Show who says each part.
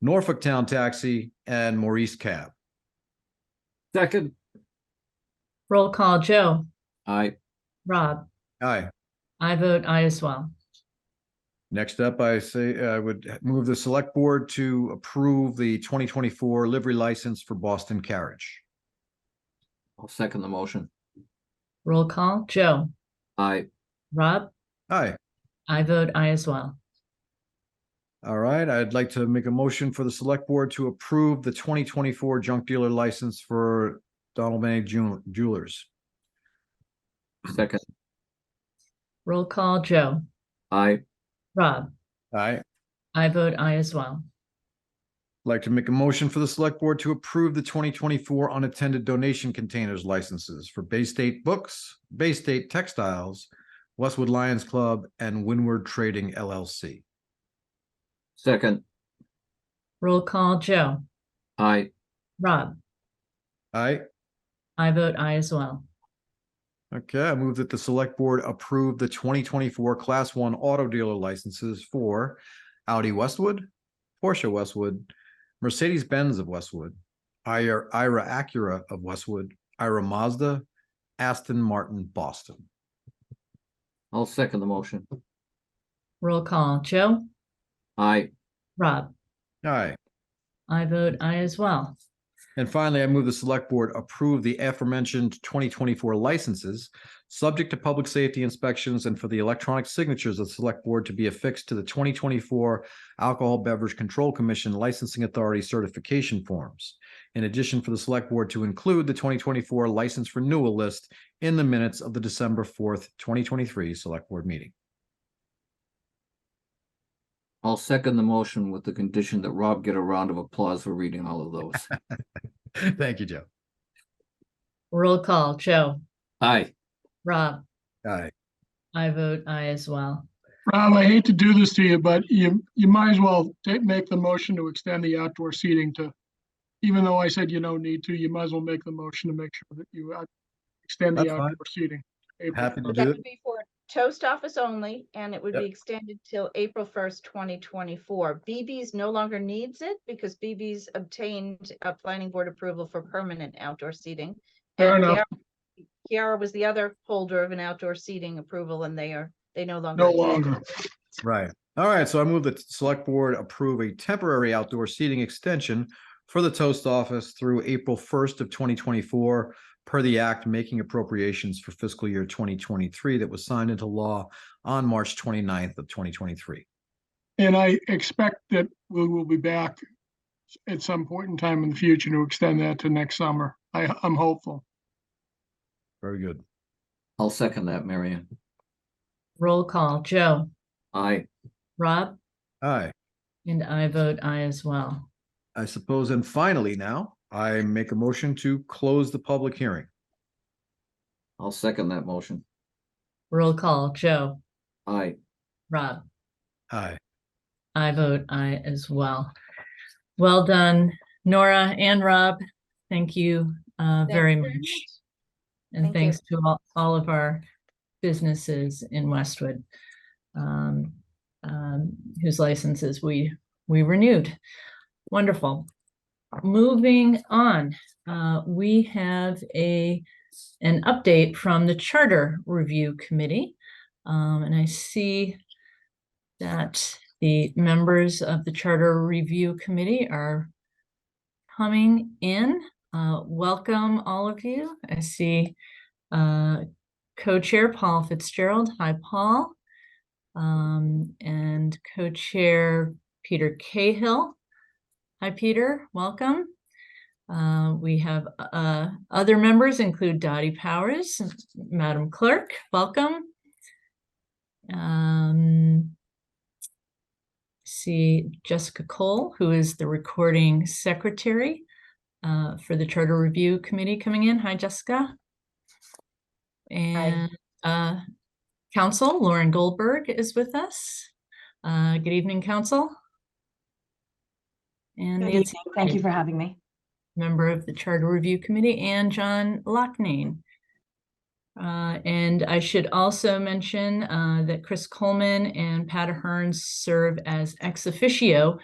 Speaker 1: Norfolk Town Taxi, and Maurice Cab.
Speaker 2: Second.
Speaker 3: Roll call, Joe,
Speaker 2: Aye.
Speaker 3: Rob,
Speaker 1: Aye.
Speaker 3: I vote aye as well.
Speaker 1: Next up, I say I would move the select board to approve the twenty twenty-four livery license for Boston Carriage.
Speaker 2: I'll second the motion.
Speaker 3: Roll call, Joe,
Speaker 2: Aye.
Speaker 3: Rob,
Speaker 1: Aye.
Speaker 3: I vote aye as well.
Speaker 1: All right, I'd like to make a motion for the select board to approve the twenty twenty-four junk dealer license for Donald May Jew- Jewelers.
Speaker 2: Second.
Speaker 3: Roll call, Joe,
Speaker 2: Aye.
Speaker 3: Rob,
Speaker 1: Aye.
Speaker 3: I vote aye as well.
Speaker 1: Like to make a motion for the select board to approve the twenty twenty-four unattended donation containers licenses for Bay State Books, Bay State Textiles, Westwood Lions Club, and Windward Trading LLC.
Speaker 2: Second.
Speaker 3: Roll call, Joe,
Speaker 2: Aye.
Speaker 3: Rob,
Speaker 1: Aye.
Speaker 3: I vote aye as well.
Speaker 1: Okay, I move that the select board approve the twenty twenty-four class one auto dealer licenses for Audi Westwood, Porsche Westwood, Mercedes-Benz of Westwood, Ira, Ira Acura of Westwood, Ira Mazda, Aston Martin Boston.
Speaker 2: I'll second the motion.
Speaker 3: Roll call, Joe,
Speaker 2: Aye.
Speaker 3: Rob,
Speaker 1: Aye.
Speaker 3: I vote aye as well.
Speaker 1: And finally, I move the select board approve the aforementioned twenty twenty-four licenses, subject to public safety inspections and for the electronic signatures of the select board to be affixed to the twenty twenty-four Alcohol Beverage Control Commission Licensing Authority certification forms. In addition, for the select board to include the twenty twenty-four license renewal list in the minutes of the December fourth, twenty twenty-three select board meeting.
Speaker 2: I'll second the motion with the condition that Rob get a round of applause for reading all of those.
Speaker 1: Thank you, Joe.
Speaker 3: Roll call, Joe,
Speaker 2: Aye.
Speaker 3: Rob,
Speaker 1: Aye.
Speaker 3: I vote aye as well.
Speaker 4: Rob, I hate to do this to you, but you, you might as well take, make the motion to extend the outdoor seating to, even though I said you don't need to, you might as well make the motion to make sure that you uh, extend the
Speaker 1: That's fine.
Speaker 4: outdoor seating. April.
Speaker 1: Happy to
Speaker 5: That
Speaker 1: do it.
Speaker 5: would be for toast office only, and it would
Speaker 1: Yep.
Speaker 5: be extended till April first, twenty twenty-four. BB's no longer needs it because BB's obtained a planning board approval for permanent outdoor seating.
Speaker 4: Fair
Speaker 5: And
Speaker 4: enough.
Speaker 5: Kiara- Kiara was the other holder of an outdoor seating approval, and they are, they no longer.
Speaker 4: No
Speaker 5: need it.
Speaker 4: longer.
Speaker 1: Right. All right. So I move that the select board approve a temporary outdoor seating extension for the toast office through April first of twenty twenty-four per the act making appropriations for fiscal year twenty twenty-three that was signed into law on March 29th of twenty twenty-three.
Speaker 4: And I expect that we will be back at some point in time in the future to extend that to next summer. I, I'm hopeful.
Speaker 1: Very good.
Speaker 2: I'll second that, Marion.
Speaker 3: Roll call, Joe,
Speaker 2: Aye.
Speaker 3: Rob,
Speaker 1: Aye.
Speaker 3: and I vote aye as well.
Speaker 1: I suppose, and finally now, I make a motion to close the public hearing.
Speaker 2: I'll second that motion.
Speaker 3: Roll call, Joe,
Speaker 2: Aye.
Speaker 3: Rob,
Speaker 1: Aye.
Speaker 3: I vote aye as well. Well done, Nora and Rob. Thank you uh,
Speaker 5: Thank
Speaker 3: very
Speaker 5: you
Speaker 3: much. And
Speaker 5: Thank you.
Speaker 3: thanks to all, all of our businesses in Westwood um, um, whose licenses we, we renewed. Wonderful. Moving on, uh, we have a, an update from the Charter Review Committee. Um, and I see that the members of the Charter Review Committee are coming in. Uh, welcome, all of you. I see uh, co-chair Paul Fitzgerald. Hi, Paul. Um, and co-chair Peter Cahill. Hi, Peter. Welcome. Uh, we have uh, other members include Dottie Powers, Madam Clerk. Welcome. Um, see Jessica Cole, who is the recording secretary uh, for the Charter Review Committee coming in. Hi, Jessica. And uh, Council Lauren Goldberg is with us. Uh, Good evening, Council. And
Speaker 6: Good
Speaker 3: Nancy
Speaker 6: evening. Thank you for having me.
Speaker 3: member of the Charter Review Committee, and John Locknane. Uh, and I should also mention uh, that Chris Coleman and Pat Ahern serve as ex officio